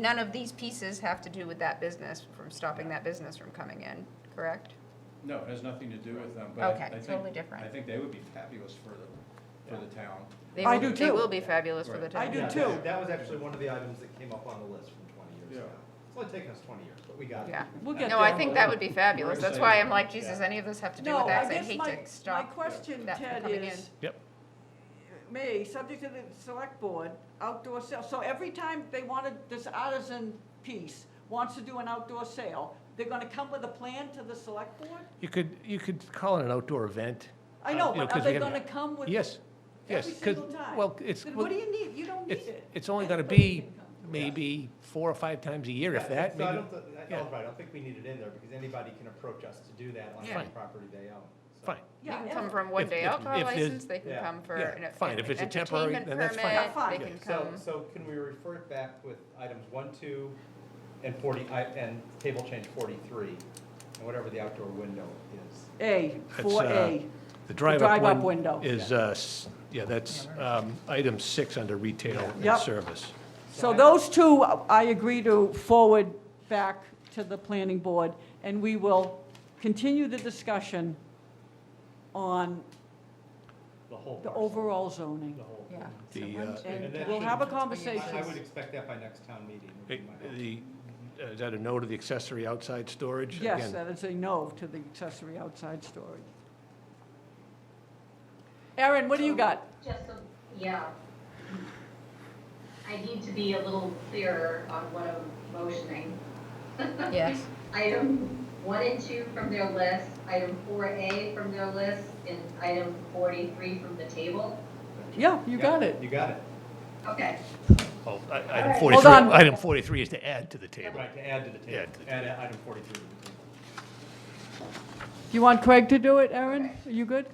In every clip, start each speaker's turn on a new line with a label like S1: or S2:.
S1: None of these pieces have to do with that business, from stopping that business from coming in, correct?
S2: No, it has nothing to do with them, but I I
S1: Okay,
S2: think.
S1: totally different.
S2: I think they would be fabulous for the, for the town.
S1: They
S3: I
S1: will-
S3: do
S1: They
S3: too.
S1: will be fabulous for the
S2: Right.
S1: town.
S3: I do
S4: Yeah,
S3: too.
S4: that- That was actually one of the items that came up on the list from twenty years
S2: Yeah.
S4: ago. It's only taken us twenty years, but we got it.
S1: Yeah.
S3: We'll get
S1: No, I
S3: there.
S1: think that would be fabulous. That's why I'm like, Jesus,
S4: Yeah.
S1: any of this have to do with
S3: No, I
S1: that? I
S3: guess
S1: hate
S3: my,
S1: to
S3: my
S1: stop.
S3: question,
S1: that from
S3: Ted,
S1: coming
S3: is.
S5: Yep.
S3: May, subject to the select board, outdoor sale, so every time they wanted, this artisan piece wants to do an outdoor sale, they're gonna come with a plan to the select board?
S5: You could, you could call it an outdoor event.
S3: I
S5: uh,
S3: know,
S5: you
S3: but are
S5: 'cause
S3: they
S5: we have-
S3: gonna come with?
S5: Yes, yes.
S3: Every
S5: 'cause-
S3: single time?
S5: Well, it's,
S3: Then
S5: well,
S3: what do you need? You don't need
S5: it's,
S3: it.
S5: it's only gonna
S3: Anybody
S5: be
S3: can come.
S5: maybe four or five times a year, if
S4: Yeah,
S5: that,
S4: So I
S5: maybe.
S4: don't, thi- I-
S5: yeah.
S4: Oliver, I don't think we need it in there because anybody can approach us to do that on
S1: Yeah.
S4: any property they own. so.
S5: Fine,
S1: They
S3: Yeah,
S1: can
S3: and-
S1: come from one
S5: If-
S1: day
S5: if-
S1: alcohol
S5: if there's-
S1: license, they can
S4: Yeah.
S1: come for
S5: Yeah,
S1: an an
S5: fine. If it's a temporary,
S1: entertainment
S5: then that's fine.
S3: Yeah,
S1: permit,
S3: fine.
S1: They can
S4: So,
S1: come.
S4: so can we refer it back with items one, two, and forty, I- and table change forty-three, and whatever the outdoor window is?
S3: A, four
S5: That's,
S3: A.
S5: the
S3: drive-up
S5: drive-up one
S3: window.
S5: is, uh, s- yeah, that's um, item six under retail and
S3: Yep.
S5: service.
S3: So those two, I agree to forward back to the planning board, and we will continue the discussion on
S4: The whole
S3: the
S4: parcel,
S3: overall zoning.
S4: The whole.
S1: Yeah. so
S5: The,
S1: one,
S5: uh,
S1: two,
S3: And
S4: then
S3: we'll
S4: she-
S3: have a
S4: I I
S3: conversation.
S4: would expect that by next town meeting. would be
S5: It-
S4: my hope.
S5: The, uh, is that a no to the accessory outside storage?
S3: Yes, uh,
S5: Again,
S3: that is a no to the accessory outside storage. Erin, what do you got?
S6: Just, so- yeah. I need to be a little clearer on what I'm motioning.
S1: Yes.
S6: Item one and two from their list, item four A from their list, and item forty-three from the table.
S3: Yeah, you got it.
S4: You got it.
S6: Okay,
S5: well, oh, i- Item
S6: Hold
S5: 43,
S3: on.
S5: item 43 is to add to the table.
S4: Right, to add to the
S5: Add
S4: table,
S5: to the
S4: add uh, item forty-three to the table.
S3: You want Craig to do it, Erin? Are you good?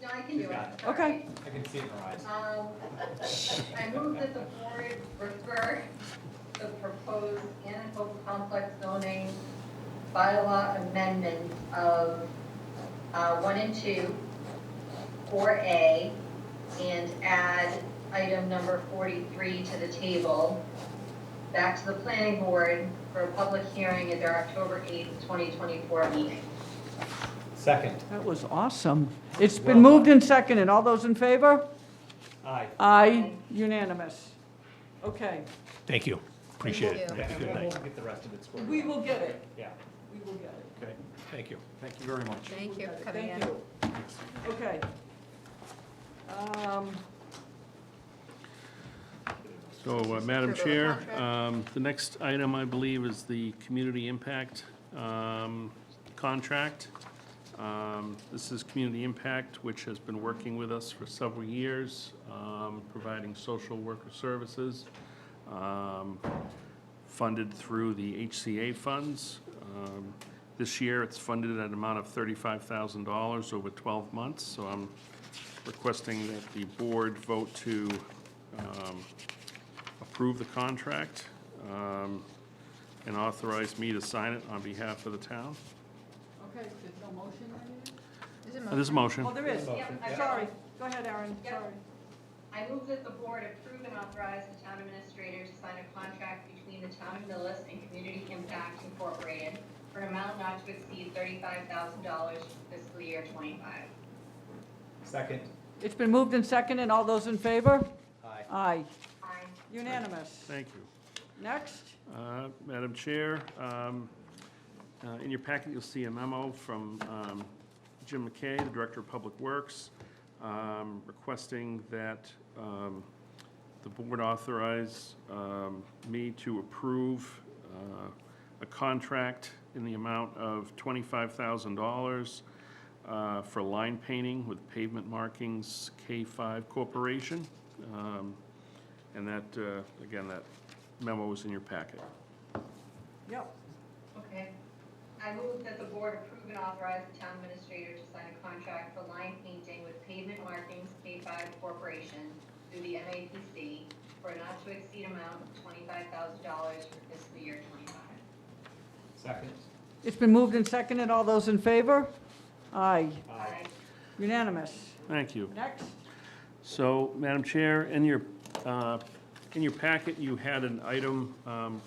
S6: no, I can do it.
S4: Got it.
S6: All
S3: Okay.
S4: I can see it in her eyes.
S6: right. Um, I move that the board refer the proposed Anaco complex zoning bylaw amendment of uh, one and two, four A, and add item number forty-three to the table, back to the planning board for a public hearing at their October eighth, twenty twenty-four meeting.
S4: Second,
S3: That was awesome. It's been moved and seconded. All those in favor?
S4: aye.
S3: Aye, unanimous. Okay,
S5: Thank you, appreciate it.
S1: you.
S5: Have a good
S4: And
S5: night.
S4: We'll get the rest of it squared.
S3: we
S4: away.
S3: will get it.
S4: Yeah.
S3: We will get it.
S5: Okay, thank you.
S4: Thank you very much.
S1: Thank you
S3: We'll get
S1: for
S3: it.
S1: coming in.
S3: Thank you. Okay. Um,
S7: So, uh,
S1: Approval
S7: Madam
S1: of
S7: Chair,
S1: contract.
S7: um, the next item, I believe, is the community impact um, contract. Um, This is Community Impact, which has been working with us for several years, um, providing social worker services, um, funded through the HCA funds. Um, This year, it's funded at an amount of $35,000 over 12 months, so I'm requesting that the board vote to um, approve the contract um, and authorize me to sign it on behalf of the town.
S3: okay, there's no motion or anything?
S1: Is it
S7: Uh, There's a motion.
S3: Oh, there is.
S4: Motion.
S6: Yep.
S3: Sorry. Go ahead, Aaron,
S6: Yep.
S3: sorry.
S6: I move that the board approve and authorize the town administrator to sign a contract between the town of Millis and Community Impact Incorporated for an amount not to exceed thirty-five thousand dollars for fiscal year twenty-five.
S4: Second,
S3: It's been moved and seconded. All those in favor?
S4: aye.
S3: Aye,
S6: Aye.
S3: unanimous.
S7: Thank you.
S3: Next,
S7: Uh, Madam Chair, um, uh, in your packet, you'll see a memo from um, Jim McKay, the Director of Public Works, um, requesting that um, the board authorize um, me to approve uh, a contract in the amount of $25,000 uh, for line painting with Pavement Markings K5 Corporation. Um, And that, uh, again, that memo was in your packet.
S3: yep,
S6: Okay. I move that the board approve and authorize the town administrator to sign a contract for line painting with pavement markings K five corporation through the MAPC for a not to exceed amount of twenty-five thousand dollars for fiscal year twenty-five.
S4: Second,
S3: it's been moved and seconded. All those in favor? Aye,
S4: aye.
S3: unanimous.
S7: Thank you.
S3: Next,
S7: So, Madam Chair, in your uh, In your packet, you had an item um,